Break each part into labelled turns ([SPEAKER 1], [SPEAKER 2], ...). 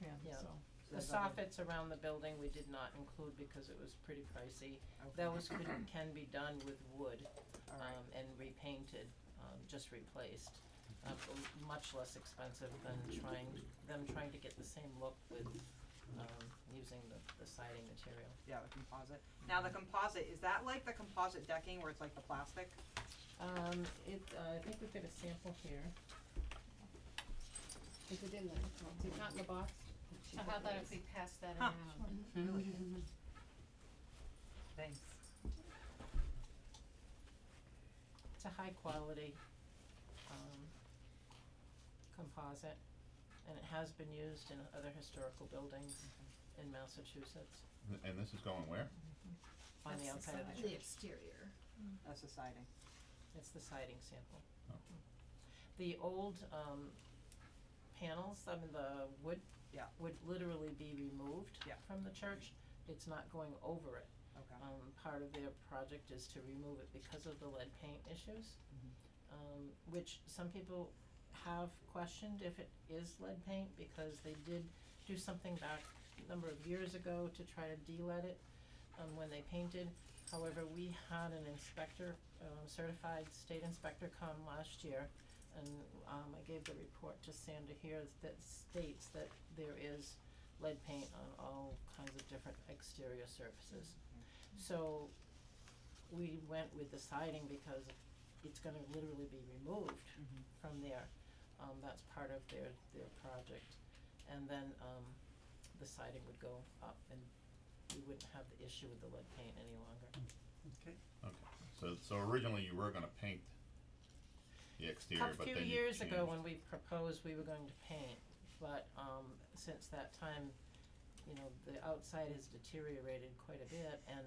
[SPEAKER 1] Yeah.
[SPEAKER 2] so.
[SPEAKER 1] The soffits around the building, we did not include because it was pretty pricey. Those could, can be done with wood, um, and repainted, um, just replaced. Uh, m- much less expensive than trying, them trying to get the same look with, um, using the, the siding material.
[SPEAKER 3] Yeah, the composite. Now, the composite, is that like the composite decking where it's like the plastic?
[SPEAKER 1] Um, it, uh, I think we've got a sample here.
[SPEAKER 4] Is it in there? Oh, Is it not in the box?
[SPEAKER 5] So how about if we pass that
[SPEAKER 3] Huh.
[SPEAKER 5] around?
[SPEAKER 3] Really? Thanks.
[SPEAKER 1] It's a high quality, um, composite, and it has been used in other historical buildings in Massachusetts,
[SPEAKER 6] Th- And this is going where?
[SPEAKER 1] on the
[SPEAKER 5] That's the
[SPEAKER 1] outside of the
[SPEAKER 5] side.
[SPEAKER 1] church.
[SPEAKER 5] The
[SPEAKER 4] exterior.
[SPEAKER 3] That's the siding.
[SPEAKER 1] It's the siding sample.
[SPEAKER 6] Oh.
[SPEAKER 1] The old, um, panels, I mean, the wood
[SPEAKER 3] Yeah.
[SPEAKER 1] would literally be removed
[SPEAKER 3] Yeah.
[SPEAKER 1] from the church. It's not going over it.
[SPEAKER 3] Okay.
[SPEAKER 1] Um, part of their project is to remove it because of the lead paint issues. Um, which some people have questioned if it is lead paint because they did do something back a number of years ago to try to de-lead it, um, when they painted. However, we had an inspector, um, certified state inspector come last year and, um, I gave the report to Sandra here that states that there is lead paint on all kinds of different exterior surfaces. So we went with the siding because it's gonna literally be removed
[SPEAKER 3] Mhm.
[SPEAKER 1] from there. Um, that's part of their, their project. And then, um, the siding would go up and we wouldn't have the issue with the lead paint any longer.
[SPEAKER 6] Okay, so, so originally you were gonna paint the exterior,
[SPEAKER 1] A
[SPEAKER 6] but then you
[SPEAKER 1] few
[SPEAKER 6] changed.
[SPEAKER 1] years ago, when we proposed we were going to paint, but, um, since that time, you know, the outside has deteriorated quite a bit, and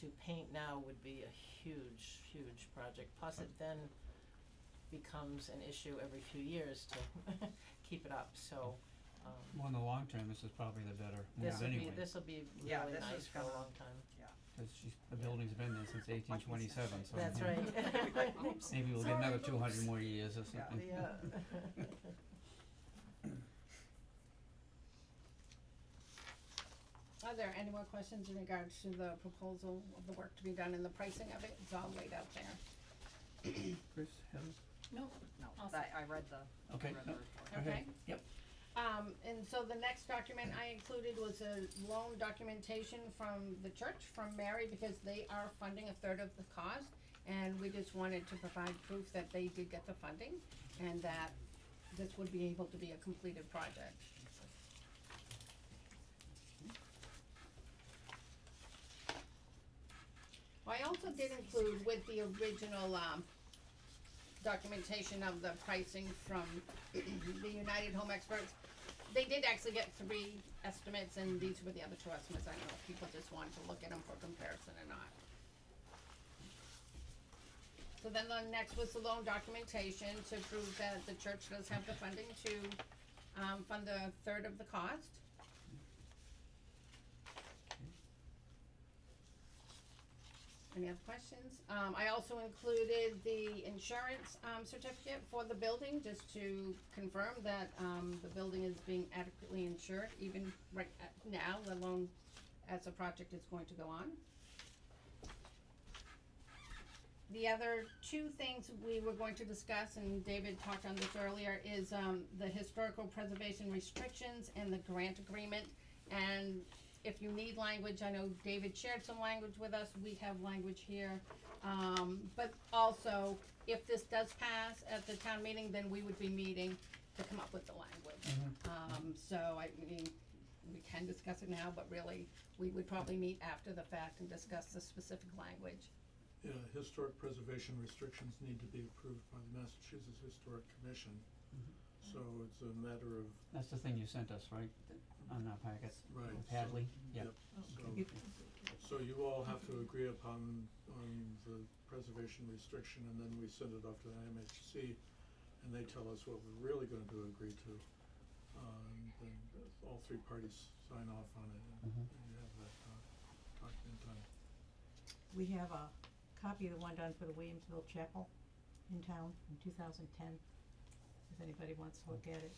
[SPEAKER 1] to paint now would be a huge, huge project, plus it then becomes an issue every few years to keep it up, so, um,
[SPEAKER 7] Well, in the long term, this is probably the better move
[SPEAKER 1] this'll be,
[SPEAKER 7] anyway,
[SPEAKER 1] this'll be
[SPEAKER 3] Yeah,
[SPEAKER 1] really
[SPEAKER 3] this
[SPEAKER 1] nice
[SPEAKER 3] is
[SPEAKER 1] for a
[SPEAKER 3] gonna-
[SPEAKER 1] long time.
[SPEAKER 7] cause she's, the building's been there since eighteen twenty-seven, so.
[SPEAKER 1] That's
[SPEAKER 7] you know,
[SPEAKER 1] right.
[SPEAKER 7] Maybe we'll get
[SPEAKER 1] Sorry,
[SPEAKER 7] another
[SPEAKER 1] folks.
[SPEAKER 7] two hundred more years or something.
[SPEAKER 1] Yeah.
[SPEAKER 4] Are there any more questions in regards to the proposal of the work to be done and the pricing of it? It's all laid out there.
[SPEAKER 7] Chris, Heather?
[SPEAKER 4] No.
[SPEAKER 3] No,
[SPEAKER 4] I'll
[SPEAKER 3] that, I read the, I
[SPEAKER 7] Okay,
[SPEAKER 3] read the
[SPEAKER 7] no,
[SPEAKER 3] report.
[SPEAKER 7] go ahead.
[SPEAKER 4] Okay.
[SPEAKER 7] Yep.
[SPEAKER 4] Um, and so the next document I included was a loan documentation from the church, from Mary, because they are funding a third of the cost. And we just wanted to provide proof that they did get the funding and that this would be able to be a completed project. Well, I also did include with the original, um, documentation of the pricing from the United Home Experts. They did actually get three estimates, and these were the other two estimates. I don't know if people just wanted to look at them for comparison or not. So then the next was the loan documentation to prove that the church does have the funding to, um, fund a third of the cost. Any other questions? Um, I also included the insurance, um, certificate for the building, just to confirm that, um, the building is being adequately insured, even right at now, let alone as the project is going to go on. The other two things we were going to discuss, and David talked on this earlier, is, um, the historical preservation restrictions and the grant agreement. And if you need language, I know David shared some language with us, we have language here. Um, but also, if this does pass at the town meeting, then we would be meeting to come up with the language. Um, so I mean, we can discuss it now, but really, we would probably meet after the fact and discuss the specific language.
[SPEAKER 8] Yeah, uh, historic preservation restrictions need to be approved by the Massachusetts Historic Commission.
[SPEAKER 7] Mm-hmm.
[SPEAKER 8] So it's a matter of,
[SPEAKER 7] That's the thing you sent us, right, Th- on our packet,
[SPEAKER 8] right, so-
[SPEAKER 7] Hadley, yeah.
[SPEAKER 8] yep, so, so you all have to agree upon, on the preservation restriction, and then we send it off to the MHC, and they tell us what we're really gonna do, agree to. Um, then all three parties sign off on it, and
[SPEAKER 7] Mhm.
[SPEAKER 8] and you have that doc- document done.
[SPEAKER 9] We have a copy of the one done for the Williamsville Chapel in town in two thousand ten, if anybody wants to look at it.